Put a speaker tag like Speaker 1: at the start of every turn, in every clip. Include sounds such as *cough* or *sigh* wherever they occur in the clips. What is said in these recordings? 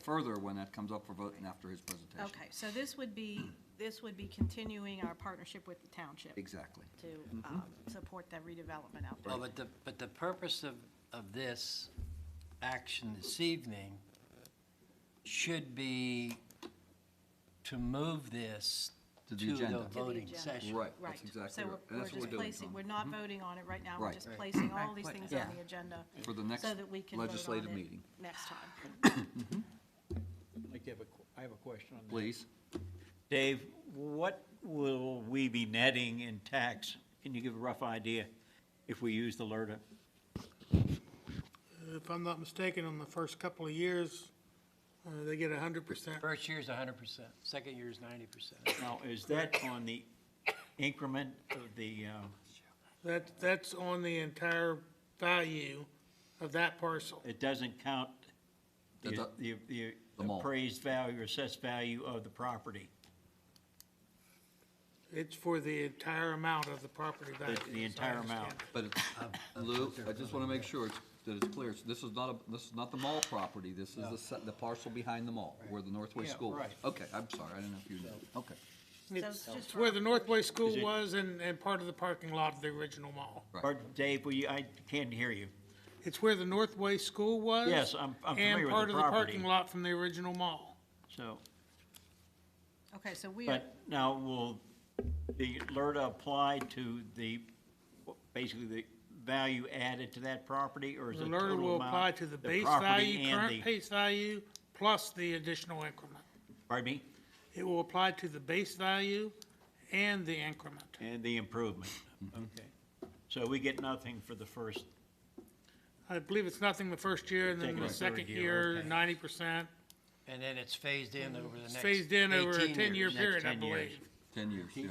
Speaker 1: further when that comes up for vote and after his presentation.
Speaker 2: Okay, so this would be, this would be continuing our partnership with the township
Speaker 1: Exactly.
Speaker 2: to
Speaker 1: Mm-hmm.
Speaker 2: um, support the redevelopment out there.
Speaker 3: Well, but the, but the purpose of, of this action this evening should be to move this
Speaker 1: To
Speaker 3: to
Speaker 1: the
Speaker 3: the
Speaker 1: agenda. To the
Speaker 3: voting
Speaker 2: agenda.
Speaker 3: session.
Speaker 1: Right,
Speaker 2: Right.
Speaker 1: that's exactly
Speaker 2: So
Speaker 1: right.
Speaker 2: we're-
Speaker 1: And
Speaker 2: we're
Speaker 1: that's what we're
Speaker 2: just
Speaker 1: doing,
Speaker 2: placing, we're
Speaker 1: Tom, Mm-hmm.
Speaker 2: not voting on it right now,
Speaker 1: Right.
Speaker 2: we're just placing all these
Speaker 4: Right.
Speaker 2: things
Speaker 1: Yeah.
Speaker 2: on the agenda
Speaker 1: for the next
Speaker 2: so that we can vote on
Speaker 1: legislative
Speaker 2: it
Speaker 1: meeting.
Speaker 2: next time.
Speaker 5: like to have a, qu- I have a question on that.
Speaker 1: Please,
Speaker 5: Dave, what will we be netting in tax? Can you give a rough idea if we use the LRTA?
Speaker 6: If I'm not mistaken, on the first couple of years, uh, they get hundred percent.
Speaker 3: First year's hundred percent, second year's ninety percent.
Speaker 5: Now, is that on the increment of the, um,
Speaker 6: That, that's on the entire value of that parcel.
Speaker 5: it doesn't count
Speaker 1: That
Speaker 5: the,
Speaker 1: do-
Speaker 5: the- the
Speaker 1: The mall.
Speaker 5: appraised value or assessed value of the property?
Speaker 6: It's for the entire amount of the property value.
Speaker 5: The- the
Speaker 6: as I
Speaker 5: entire amount.
Speaker 6: understand
Speaker 1: but it's- Lou, I just want to make sure it's- that it's clear, It's- this is not, a this is not the mall property, this is the se- the parcel behind the mall, where the Northway
Speaker 5: Yeah,
Speaker 1: School is.
Speaker 5: right.
Speaker 1: Okay, I'm sorry, I didn't know if you knew, okay,
Speaker 6: it.
Speaker 2: So it's
Speaker 6: It's
Speaker 2: just
Speaker 6: it's where
Speaker 2: for-
Speaker 6: the Northway
Speaker 5: Is
Speaker 6: School
Speaker 5: it-
Speaker 6: was and, and part of the parking lot of the original mall.
Speaker 1: Right.
Speaker 5: Pardon, Dave, will you, I can't hear you.
Speaker 6: It's where the Northway School was.
Speaker 5: Yes, I'm- I'm familiar with the
Speaker 6: And part of the
Speaker 5: property.
Speaker 6: parking lot from the original mall.
Speaker 5: So,
Speaker 2: Okay, so we are,
Speaker 5: but now will the LRTA apply to the, basically the value added to that property or is
Speaker 6: The
Speaker 5: it
Speaker 6: LRTA
Speaker 5: total
Speaker 6: will apply
Speaker 5: amount?
Speaker 6: to the base
Speaker 5: property
Speaker 6: value,
Speaker 5: and
Speaker 6: current
Speaker 5: the-
Speaker 6: base value, plus the additional increment.
Speaker 5: Pardon me?
Speaker 6: It will apply to the base value and the increment.
Speaker 5: And the
Speaker 6: *laughs*
Speaker 5: improvement, okay. So we get nothing for the first,
Speaker 6: I believe it's nothing the first year, and then
Speaker 5: Taking
Speaker 6: the
Speaker 5: the third
Speaker 6: second
Speaker 5: year,
Speaker 6: year,
Speaker 3: okay.
Speaker 6: ninety percent.
Speaker 3: And then it's phased in over the next
Speaker 6: It's
Speaker 3: eighteen
Speaker 6: phased in over a ten-year
Speaker 3: years.
Speaker 5: next
Speaker 6: period, I
Speaker 5: 10 years.
Speaker 6: believe.
Speaker 1: ten years, yeah.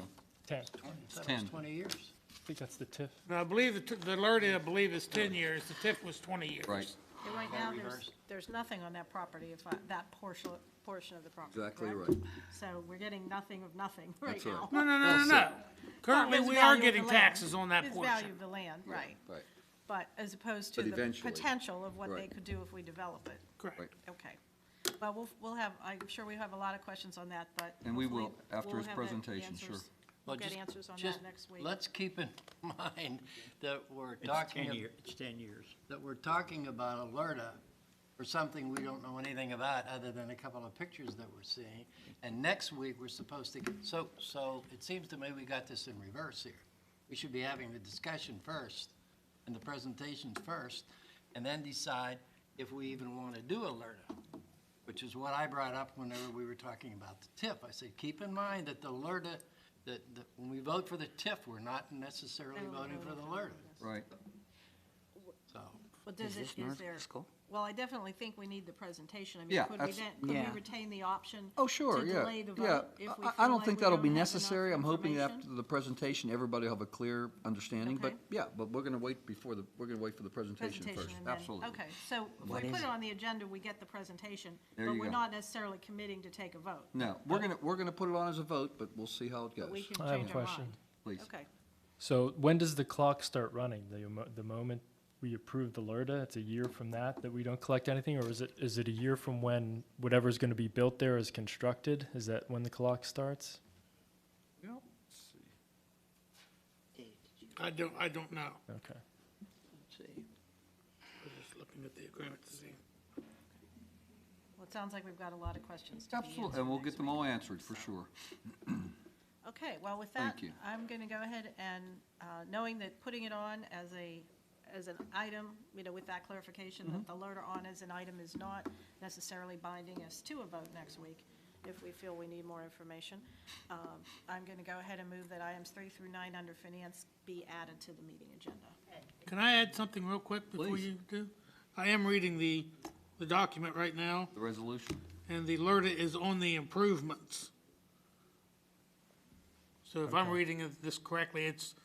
Speaker 7: Ten.
Speaker 3: I thought it was
Speaker 1: 10.
Speaker 3: Twenty years.
Speaker 7: I think that's the TIF.
Speaker 6: And I believe the, t- the LRTA, I believe, is ten years, the TIF was twenty years.
Speaker 1: Right,
Speaker 2: and right now, there's,
Speaker 3: reversed.
Speaker 2: there's nothing on that property, if I- that portion, portion of the property.
Speaker 1: exactly
Speaker 2: correct?
Speaker 1: right.
Speaker 2: So we're getting nothing of nothing *laughs* right
Speaker 1: That's right.
Speaker 2: now.
Speaker 6: No, no, no, no, no. Currently,
Speaker 2: There's
Speaker 6: we
Speaker 2: value
Speaker 6: are
Speaker 2: of
Speaker 6: getting
Speaker 2: the land.
Speaker 6: taxes on that
Speaker 2: There's value
Speaker 6: portion.
Speaker 2: of the land, right.
Speaker 1: Right,
Speaker 2: But as opposed to
Speaker 1: But
Speaker 2: the
Speaker 1: eventually,
Speaker 2: potential of what they
Speaker 1: right.
Speaker 2: could do if we develop it.
Speaker 1: right.
Speaker 6: Correct.
Speaker 2: Okay. Well, we'll, we'll have, I'm sure we have a lot of questions on that, but.
Speaker 1: And we
Speaker 2: hopefully
Speaker 1: will, after
Speaker 2: we'll
Speaker 1: his
Speaker 2: have the- the
Speaker 1: presentation, sure.
Speaker 2: answers- We'll
Speaker 3: Well,
Speaker 2: get
Speaker 3: just-
Speaker 2: answers on
Speaker 3: just
Speaker 2: that next week.
Speaker 3: Let's keep in *laughs* mind that we're
Speaker 5: it's
Speaker 3: talking,
Speaker 5: ten
Speaker 3: ab-
Speaker 5: year, it's ten years.
Speaker 3: that we're talking about Alerta for something we don't know anything about, other than a couple of pictures that we're seeing. And next week, we're supposed to, so, so it seems to me we got this in reverse here. We should be having the discussion first, and the presentations first, and then decide if we even want to do Alerta, which is what I brought up whenever we were talking about the TIF. I said, keep in mind that the Alerta, that, that when we vote for the TIF, we're not necessarily voting for the Alerta,
Speaker 1: Right,
Speaker 3: so.
Speaker 2: Well, does it, is there, well, I definitely think we need the presentation. I mean,
Speaker 1: Yeah,
Speaker 2: could we
Speaker 1: that's-
Speaker 2: then, could we
Speaker 7: Yeah.
Speaker 2: retain the option?
Speaker 1: oh, sure,
Speaker 2: to
Speaker 1: yeah,
Speaker 2: delay the
Speaker 1: yeah.
Speaker 2: vote if we
Speaker 1: I-
Speaker 2: feel
Speaker 1: I don't
Speaker 2: like
Speaker 1: think
Speaker 2: we
Speaker 1: that'll
Speaker 2: don't
Speaker 1: be
Speaker 2: have enough
Speaker 1: necessary, I'm hoping that after
Speaker 2: information?
Speaker 1: the presentation, everybody will have a clear understanding, but,
Speaker 2: Okay.
Speaker 1: yeah, but we're gonna wait before the, we're gonna wait for the presentation first,
Speaker 2: and then-
Speaker 1: absolutely.
Speaker 2: Okay, so if we
Speaker 7: What
Speaker 2: put
Speaker 7: is
Speaker 2: it
Speaker 7: it?
Speaker 2: on the agenda, we get the presentation,
Speaker 1: There
Speaker 2: but
Speaker 1: you
Speaker 2: we're
Speaker 1: go.
Speaker 2: not necessarily committing to take a vote.
Speaker 1: No, we're gonna, we're gonna put it on as a vote, but we'll see how it
Speaker 2: But we
Speaker 1: goes,
Speaker 2: can
Speaker 7: I have a
Speaker 2: change our
Speaker 7: question.
Speaker 2: mind.
Speaker 1: please.
Speaker 2: Okay,
Speaker 7: So when does the clock start running? The, mo- the moment we approve the LRTA, it's a year from that, that we don't collect anything? Or is it, is it a year from when whatever's gonna be built there is constructed? Is that when the clock starts?
Speaker 6: I don't, I don't know.
Speaker 7: Okay.
Speaker 6: We're just looking at the agreement to see.
Speaker 2: well, it sounds like we've got a lot of questions to be answered.
Speaker 1: Absolutely, and we'll get them all answered, for sure.
Speaker 2: Okay, well, with that,
Speaker 1: Thank you.
Speaker 2: I'm going to go ahead and, uh, knowing that putting it on as a, as an item, you know, with that clarification that the
Speaker 1: Mm-hmm.
Speaker 2: letter on as an item is not necessarily binding us to a vote next week, if we feel we need more information, um, I'm going to go ahead and move that items three through nine under finance be added to the meeting agenda.
Speaker 6: Can I add something real quick before
Speaker 1: Please.
Speaker 6: you do? I am reading the, the document right now,
Speaker 1: The resolution,
Speaker 6: and the LRTA is on the improvements. So if I'm reading it- this correctly, it's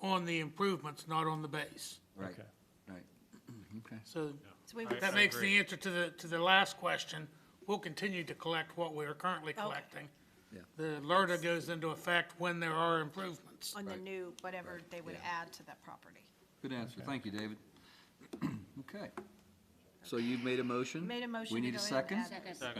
Speaker 6: on the improvements, not on the base.
Speaker 1: right,
Speaker 7: Okay.
Speaker 1: right, *clears throat* okay.
Speaker 6: So
Speaker 2: So we would,
Speaker 6: that makes the answer to the, to the last question, we'll continue to collect what we are currently collecting.
Speaker 1: Yeah.
Speaker 6: The LRTA goes into effect when there are improvements.
Speaker 2: on the new, whatever they would
Speaker 1: yeah.
Speaker 2: add to that property.
Speaker 1: Good answer, thank you, David. *clears throat* Okay,
Speaker 2: So you've made a motion?
Speaker 1: Made a motion
Speaker 2: We
Speaker 1: to
Speaker 2: need a
Speaker 1: go ahead and
Speaker 2: second?
Speaker 1: add this.